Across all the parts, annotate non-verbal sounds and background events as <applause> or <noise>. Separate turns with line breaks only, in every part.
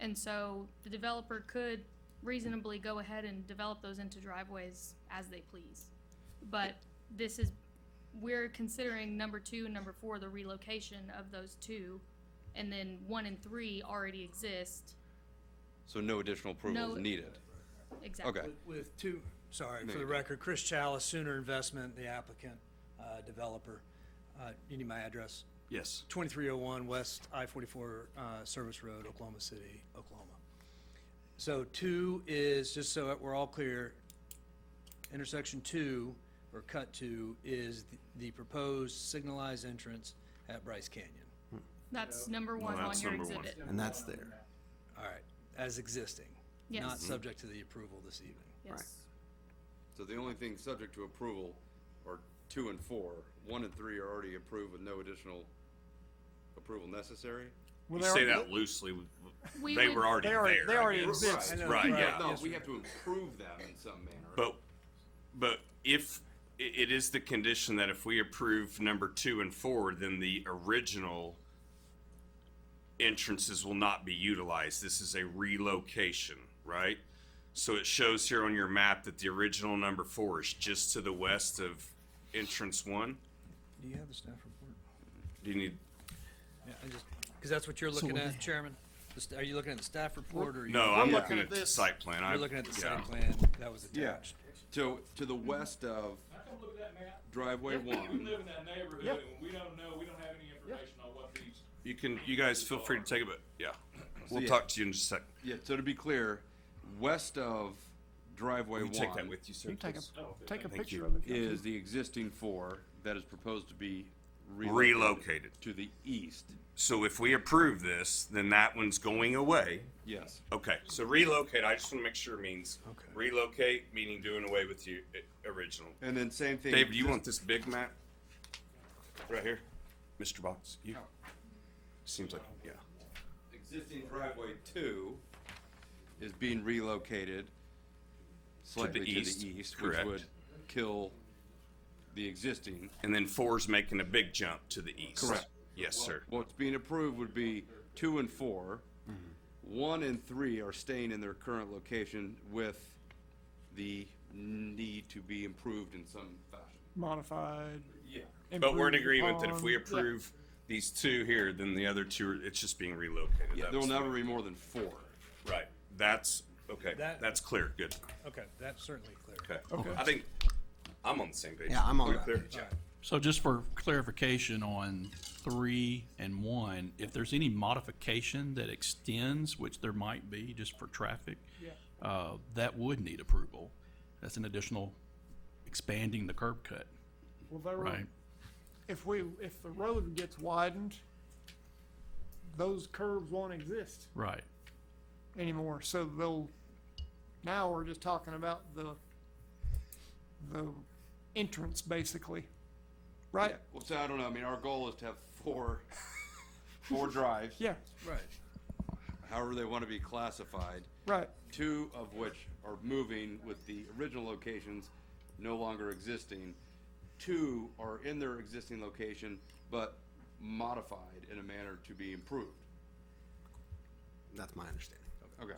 And so the developer could reasonably go ahead and develop those into driveways as they please. But this is, we're considering number two and number four, the relocation of those two. And then one and three already exist,
So no additional approval
No-
is needed?
exactly.
Okay.
With- With two, sorry,
No,
for the
you don't.
record, Chris Chalice, Sooner Investment, the applicant, uh, developer. Uh, You need my address?
Yes.
2301 West I-44 uh, Service Road, Oklahoma City, Oklahoma. So two is, just so that we're all clear, intersection two, or cut two, is the- the proposed signalized entrance at Bryce Canyon.
That's number one
No,
on
that's
your
number one.
exhibit.
And that's there.
All right, as existing. Not
Yes.
subject to the approval this evening.
Yes.
So the only thing subject to approval are two and four. One and three are already approved with no additional approval necessary?
You say that loosely. w- w-
We
They
would-
were already
They already-
there.
they
I
already
guess.
exist.
I know,
Right,
right.
yeah.
No,
Yes,
we
sir.
have to improve them in some manner.
But, but if, i- it is the condition that if we approve number two and four, then the original entrances will not be utilized. This is a relocation, right? So it shows here on your map that the original number four is just to the west of entrance one.
Do you have the staff report?
Do you need,
Yeah, I just, because that's what you're looking at, Chairman? The st- Are you looking at the staff report or? are you-
no, I'm
We're
looking at the site plan. I-
You're looking at the
yeah.
site plan that was
Yeah.
attached.
To, to the west of
I come look at that map.
driveway
We
one,
live in that neighborhood
Yep.
and we don't know, we don't have any information on what these.
You can, you guys feel free to take it, but, yeah. We'll
yeah.
talk to you in just a second.
yeah, so to be clear, west of driveway
Will
one.
you take that with you, sir?
You take a, take a
Thank you.
picture of it.
is the existing four that is proposed to be relocated
Relocated.
to the east.
So if we approve this, then that one's going away.
Yes.
Okay, so relocate, I just want to make sure means
Okay.
relocate, meaning doing away with you i- original.
And then same thing.
Dave, do you want this big map? Right here? Mr. Box, you? Seems like, yeah.
Existing driveway two is being relocated slightly to
east,
the east, which
correct.
would kill the existing.
And then four's making a big jump to the east.
Correct.
Yes, sir.
What's being approved would be two and four.
Mm-hmm.
One and three are staying in their current location with the need to be improved in some fashion.
Modified.
But we're in
improved
agreement that if we
upon.
approve these two here, then the other two, are- it's just being relocated. That
There will
was-
never be more than four.
Right, that's, okay,
That-
that's clear, good.
Okay, that's certainly clear.
Okay. I think I'm on the same page.
Yeah, I'm on
We're
that
clear?
page.
So just for clarification on three and one, if there's any modification that extends, which there might be just for traffic, uh, that would need approval. That's an additional expanding the curb cut,
Well, they were,
right?
if we, if the road gets widened, those curves won't exist
Right.
anymore, so they'll, now we're just talking about the, the entrance, basically. Right?
Well, so I don't know. I mean, our goal is to have four, <laughs> four drives,
Yeah,
Right.
however they want to be classified.
right.
Two of which are moving with the original locations no longer existing. Two are in their existing location but modified in a manner to be improved.
That's my understanding.
Okay.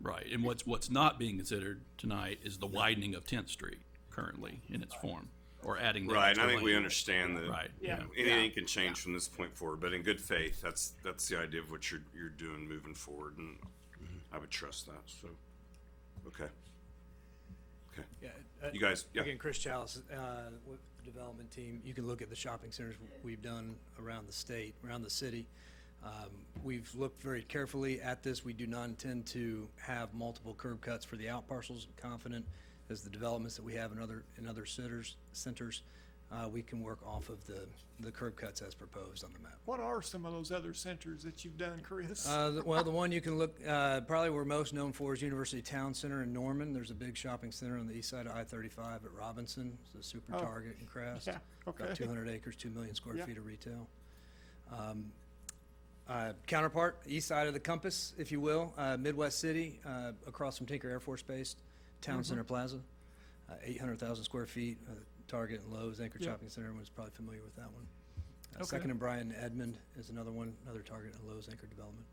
Right, and what's, what's not being considered tonight is the widening of Tenth Street currently in its form, or adding that
Right, and
to
I think we
lane.
understand that.
Right.
you know, Anything can change from this point forward, but in good faith, that's, that's the idea of what you're, you're doing moving forward, and I would trust that, so, okay. Okay, you guys, yeah,
Again, Chris Chalice, uh, with the development team, you can look at the shopping centers we've done around the state, around the city. Um, We've looked very carefully at this. We do not intend to have multiple curb cuts for the out parcels. Confident as the developments that we have in other, in other centers, centers, uh, we can work off of the, the curb cuts as proposed on the map.
What are some of those other centers that you've done, Chris?
Uh, the- well, the one you can look, uh, probably we're most known for is University Town Center in Norman. There's a big shopping center on the east side of I-35 at Robinson. It's a super
Oh.
Target and Crest.
Yeah,
About
okay.
200 acres, 2 million square
Yeah.
feet of retail. Um, Uh, counterpart, east side of the compass, if you will, uh, Midwest City, uh, across from Tinker Air Force Base,
Mm-hmm.
Town Center Plaza, uh, 800,000 square feet, uh, Target and Lowe's Anchor
Yeah.
Shopping Center, everyone's probably familiar with that one. Uh, Second and Bryan Edmond is another one, another Target and Lowe's Anchor development.